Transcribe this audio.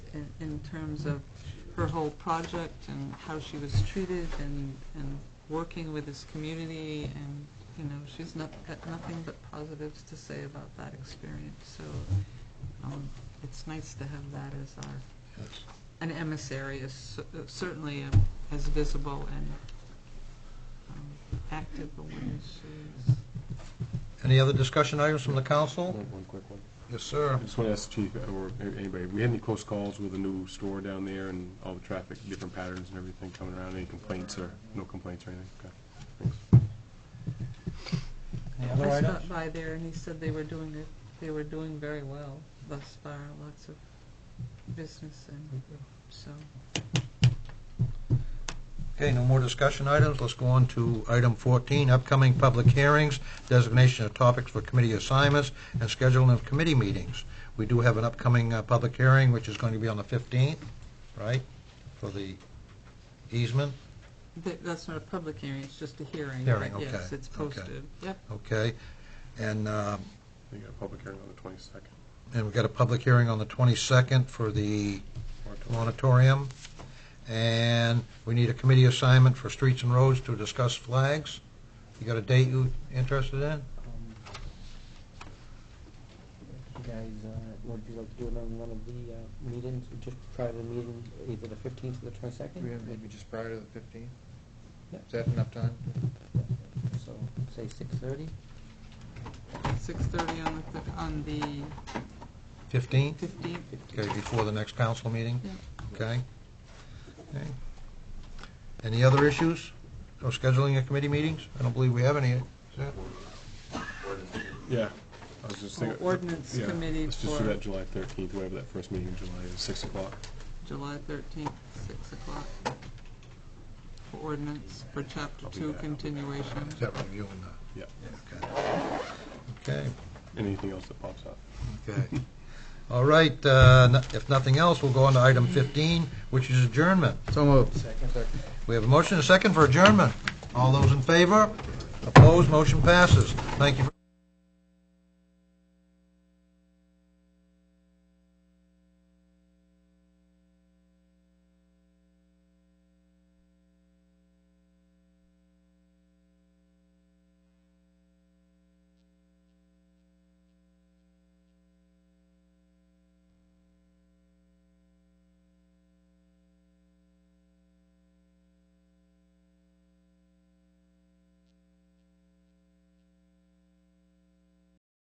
in, in terms of her whole project and how she was treated and, and working with this community and, you know, she's not, got nothing but positives to say about that experience, so, um, it's nice to have that as our, Yes. an emissary is cer- uh, certainly um, as visible and um, active a one as she is. Any other discussion items from the council? One quick one. Yes, sir. I just want to ask Chief, or anybody, we had any close calls with the new store down there and all the traffic, different patterns and everything coming around? Any complaints or, no complaints or anything? Okay, thanks. Any other I items? stopped by there and he said they were doing it, they were doing very well thus far, lots of business and, so, Okay, no more discussion items. Let's go on to item 14, upcoming public hearings, designation of topics for committee assignments, and scheduling of committee meetings. We do have an upcoming uh, public hearing, which is going to be on the 15th, right, for the easement? That- that's not a public hearing, it's just a hearing. Hearing, but Yes, okay, it's okay. posted, yep. Okay. And, uh, You got a public hearing on the twenty-second. and we've got a public hearing on the 22nd for the Monitorium, and we need a committee assignment for streets and roads to discuss flags. You got a date you interested in? um, You guys, uh, would you like to do it on one of the uh, meetings, just prior to the meeting, either the fifteenth or the twenty-second? We have maybe just prior to the fifteenth? Yeah. Is that enough time? So, say six-thirty? Six-thirty on the, fif- on the 15th? fifteenth. Okay, before the next council meeting? Yeah. Okay? Okay. Any other issues or scheduling of committee meetings? I don't believe we have any. Is that- Yeah. I was just Well, thinking- ordinance yeah, committee Let's just for- do that July thirteenth, whatever that first meeting in July is, six o'clock. July thirteenth, six o'clock. For ordinance, for chapter I'll be two back. continuation. Is that reviewing Yeah. the, okay? Anything else that pops up? Okay, okay. All right, uh, no- if nothing else, we'll go on to item 15, which is adjournment. So moved. Second. Second. We have a motion and a second for adjournment. All those in favor? Opposed? Motion passes. Thank you.